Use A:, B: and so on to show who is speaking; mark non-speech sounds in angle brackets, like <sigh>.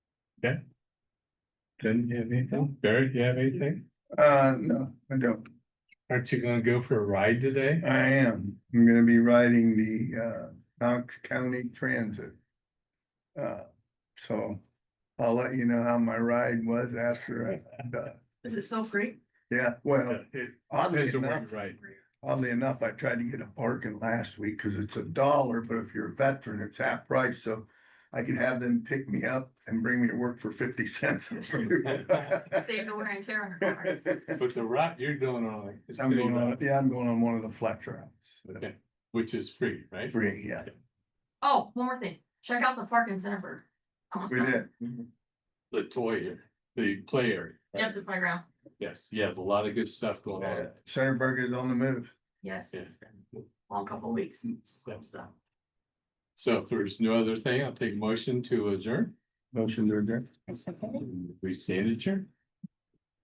A: Jen, you have anything? Barry, you have anything?
B: Uh, no, I don't.
A: Aren't you gonna go for a ride today?
B: I am. I'm gonna be riding the uh Knox County Transit. Uh, so I'll let you know how my ride was after I, uh,
C: Is it
B: <laughs>
C: so free?
B: yeah, well, it- oddly
A: There's a
B: enough.
A: ride.
B: Oddly enough, I tried to get a bargain last week because it's a dollar, but if you're a veteran, it's half price, so I can have them pick me up and bring me to work for
A: <laughs>
B: fifty <laughs> cents.
C: Save the wear and tear on the car.
A: But the route you're going on is
B: I'm
A: still
B: going on,
A: not-
B: yeah, I'm going on one of the flat routes.
A: Okay. which is free, right?
B: Free, yeah,
C: Oh, one more thing. Check out the park in Centerburg. Almost
B: we
C: done.
B: did.
A: The toy area, the play area. right?
C: Yes, the playground.
A: Yes, you have a lot of good stuff going on.
B: Centerburg is on the move.
C: Yes,
A: Yeah.
C: long couple of weeks. Some stuff.
A: So if there's no other thing, I'll take a motion to adjourn.
B: Motion to adjourn.
A: We stand adjourned.